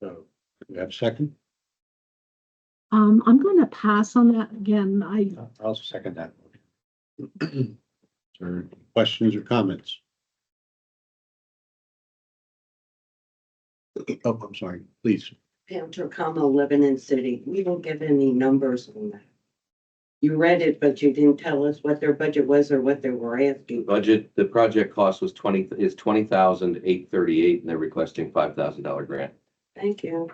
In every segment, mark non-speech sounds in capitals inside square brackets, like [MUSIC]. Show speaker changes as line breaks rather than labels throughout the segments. So, do you have a second?
Um, I'm gonna pass on that again. I,
I'll second that. motion. [CLEARS THROAT] Is there any questions or comments? Oh, I'm sorry, please.
Down to comma eleven in city, we don't give any numbers on that. You read it, but you didn't tell us what their budget was or what they were
The
asking.
budget, the project cost was twenty, is twenty thousand eight thirty-eight, and they're requesting five thousand dollar grant.
Thank you.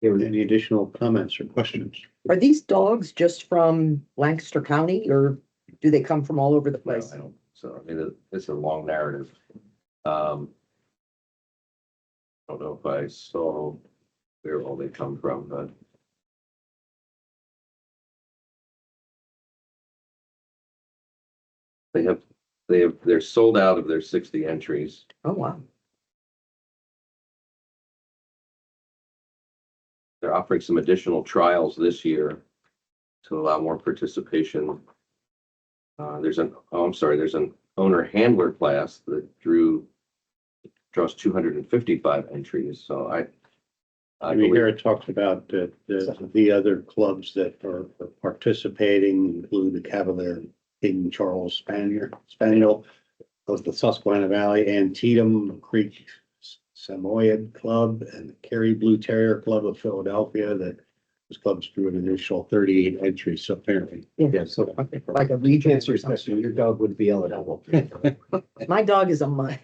Any additional comments or questions?
Are these dogs just from Lancaster County or do they come from all over the
No,
place?
I don't- So, I mean, it- it's a long narrative. Um. I Don't know if I saw where all they come from, but. They have, they have, they're sold out of their sixty entries.
Oh, wow.
They're offering some additional trials this year to allow more participation. Uh, there's an, oh, I'm sorry, there's an owner handler class that drew, draws two hundred and fifty-five entries, so I.
I
I
mean,
believe-
here it talks about uh, the, the other clubs that are participating include the Cavalier King Charles Spanier, Spaniel of the Susquehanna Valley, Antietam Creek Samoyed Club and the Cary Blue Terrier Club of Philadelphia that those clubs drew an initial thirty-eight entries so apparently.
Yeah,
so.
Like a region.
Answer your question, your dog would be eligible.
[LAUGHS]
My dog is a mutt.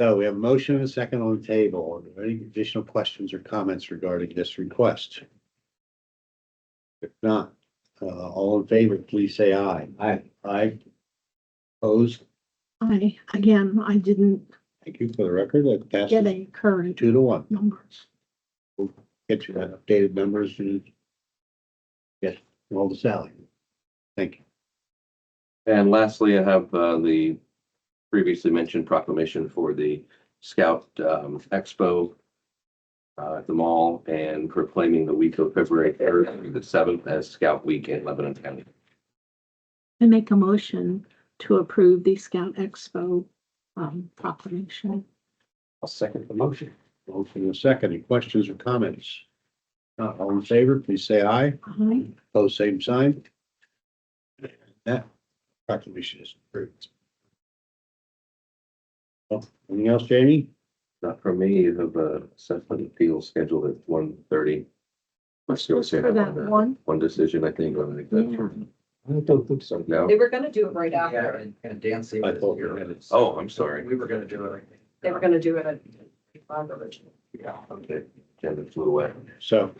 So we have a motion and a second on the table. Are there any additional questions or comments regarding this request? If not, uh, all in favor, please say aye.
Aye.
Aye. Opposed?
I, again, I didn't
Thank you for the record. That
get
passes
a current
two to one.
numbers.
Get you that updated numbers and yes, roll the Sally. Thank you.
And lastly, I have uh, the previously mentioned proclamation for the Scout um, Expo uh, at the mall and proclaiming the week of February third through the seventh as Scout Week in Lebanon County.
I make a motion to approve the Scout Expo um proclamation.
I'll second the motion.
Motion and a second. Any questions or comments? Not all in favor, please say aye.
I,
Pose same sign. That proclamation is approved. Well, Anything else, Jamie?
Not from me, you have a assessment appeal scheduled at one thirty.
What's this for that one?
One decision, I think, on the.
I don't think so.
So now,
They were gonna do it right
Yeah,
after.
and- and Dancy.
I thought we were gonna-
oh, I'm sorry.
We were gonna do it.
They were gonna do it at five originally.
Yeah.
Okay, agenda flew away.
So,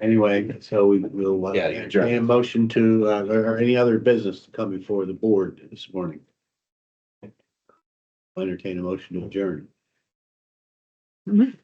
anyway, so we will. uh,
Yeah, you're adjourned.
entertain a motion to, uh, or any other business to come before the board this morning. Entertain a motion to adjourn.
I